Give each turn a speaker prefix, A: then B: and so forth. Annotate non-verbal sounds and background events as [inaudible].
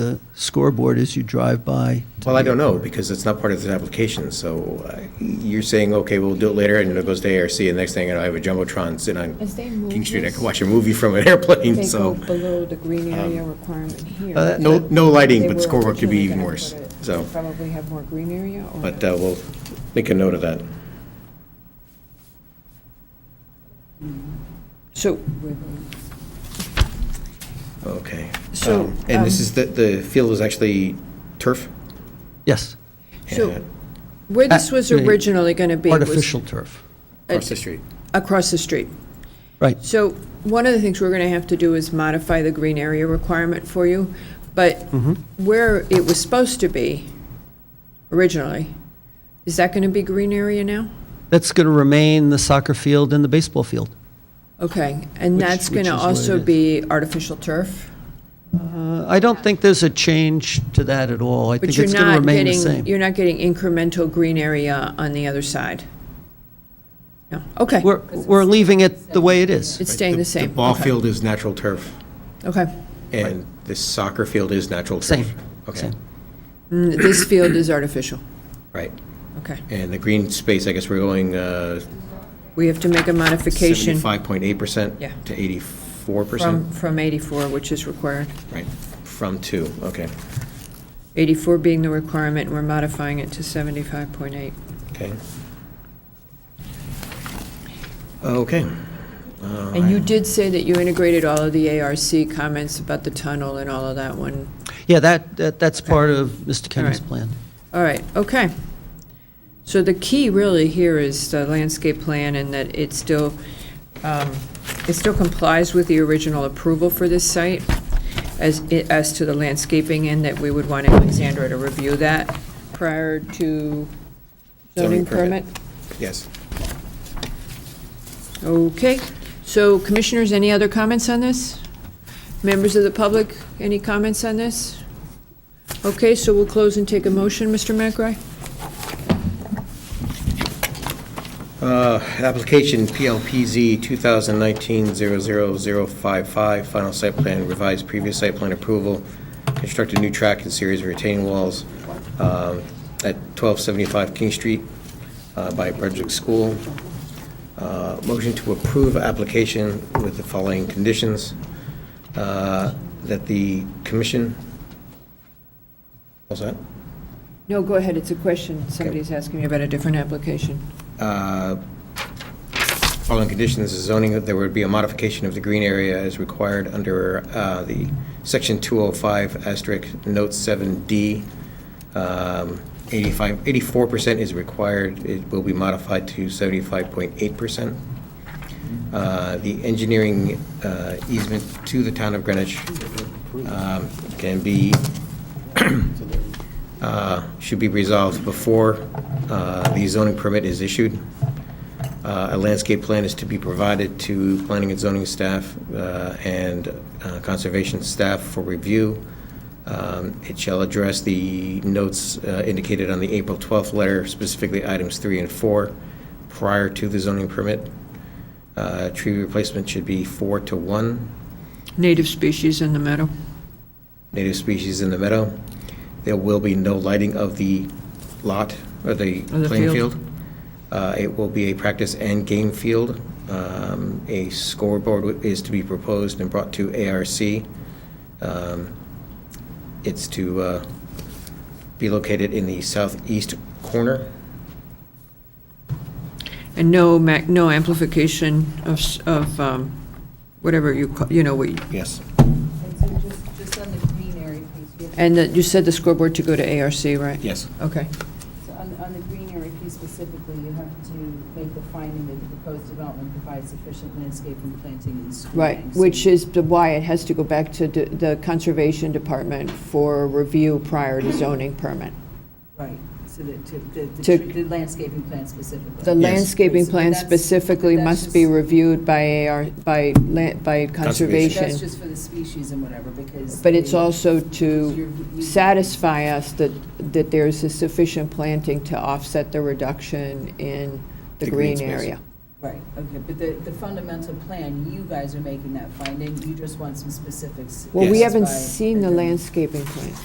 A: the scoreboard as you drive by. to
B: Well, I
A: the
B: don't know,
A: airport.
B: because it's not part of this application, so uh, you're saying, okay, we'll do it later, and it goes to ARC, and next thing, you know, I have a jumbotron sitting
C: As they
B: on
C: move
B: King Street, I can
C: this-
B: watch a movie from an [laughs] airplane,
C: They go
B: so, uh, um,
C: below the green area requirement here.
A: Uh,
B: no, no lighting,
C: They
B: but
C: were
B: scoreboard could be
C: originally
B: even
C: gonna
B: worse,
C: put it-
B: so,
C: Probably have more green area or.
B: but uh, we'll make a note of that.
D: So,
B: Okay.
D: So,
B: Um, And this
D: um,
B: is, the the field is actually turf?
A: Yes,
B: Yeah,
D: so where this was
A: Uh, the
D: originally going to be was
A: artificial turf,
B: Across the street.
D: across the street.
A: right.
D: So one of the things we're going to have to do is modify the green area requirement for you, but
A: Mm-hmm.
D: where it was supposed to be originally, is that going to be green area now?
A: That's going to remain the soccer field and the baseball field.
D: Okay, and
A: Which-
D: that's
A: which
D: going to
A: is what it
D: also
A: is.
D: be artificial turf?
A: Uh, I don't think there's a change to that at all. I
D: But
A: think
D: you're
A: it's going to
D: not
A: remain the
D: getting,
A: same.
D: you're not getting incremental green area on the other side? No, okay,
A: We're, we're leaving it the way it is.
D: it's staying the same?
B: The ball
D: Okay,
B: field is natural turf,
D: Okay.
B: and the soccer field is natural turf.
A: Same,
B: Okay,
A: same.
D: Mm, This field is artificial,
B: right.
D: okay.
B: And the green space, I guess we're going uh,
D: We have to make a modification
B: 75.8%
D: Yeah.
B: to 84%?
D: from, from 84, which is required.
B: Right, from two, okay,
D: 84 being the requirement, and we're modifying it to 75.8.
B: okay. Okay,
D: And you did say that you integrated all of the ARC comments about the tunnel and all of that one.
A: Yeah, that, that that's part of Mr. Kenny's
D: right.
A: plan.
D: All right, okay. So the key really here is the landscape plan and that it still, um, it still complies with the original approval for this site as, as to the landscaping and that we would want Alexandra to review that prior to
B: Zoning
D: zoning
B: permit.
D: permit?
B: yes.
D: Okay, so commissioners, any other comments on this? Members of the public, any comments on this? Okay, so we'll close and take a motion, Mr. McRae?
B: Uh, Application PLPZ 2019-00055, final site plan, revised previous site plan approval, construct a new track and series of retaining walls um, at 1275 King Street uh, by Brunswick School. Uh, Motion to approve application with the following conditions, uh, that the commission, what's that?
D: No, go ahead, it's a question. Somebody's asking me about a different application.
B: uh, Following conditions, the zoning, that there would be a modification of the green area as required under uh, the section 205 asterisk note 7D. Um, 85, 84% is required, it will be modified to 75.8%. Uh, The engineering uh, easement to the town of Greenwich um, can be [clears throat] uh, should be resolved before uh, the zoning permit is issued. Uh, A landscape plan is to be provided to planning and zoning staff uh, and uh, conservation staff for review. Um, It shall address the notes uh, indicated on the April 12th letter, specifically items three and four, prior to the zoning permit. Uh, Tree replacement should be four to one
D: Native species in the meadow.
B: native species in the meadow. There will be no lighting of the lot, or the
D: Of the
B: playing
D: field.
B: field. Uh, It will be a practice and game field. Um, A scoreboard is to be proposed and brought to ARC. Um, It's to uh, be located in the southeast corner.
D: And no ma, no amplification of, s- of, um, whatever you, ca- you know, what, you-
B: Yes.
E: And so just, just on the green area piece, we have-
D: and that, you said the scoreboard to go to ARC, right?
B: Yes.
D: Okay,
E: so on, on the green area piece specifically, you have to make the finding that the proposed development provides sufficient landscaping, planting, and screening.
D: right,
E: So
D: which is the why it has to go back to the- the Conservation Department for review prior to zoning permit.
E: Right, so that, to, the,
D: To-
E: the tree- the landscaping plan specifically.
D: The landscaping
E: Right, so
D: plan
E: that's-
D: specifically
E: but that's
D: must be
E: just-
D: reviewed by AR, by, la-
B: Conservation.
D: by
E: That's
D: Conservation,
E: just for the species and whatever, because.
D: but it's
E: the-
D: also to
E: you're- you-
D: satisfy us that, that there's a sufficient planting to offset the reduction in the
B: The green
D: green
B: space.
D: area.
E: Right, okay, but the, the fundamental plan, you guys are making that finding, you just want some specifics.
D: Well, we
B: Yes.
D: haven't
E: by-
D: seen the landscaping plan.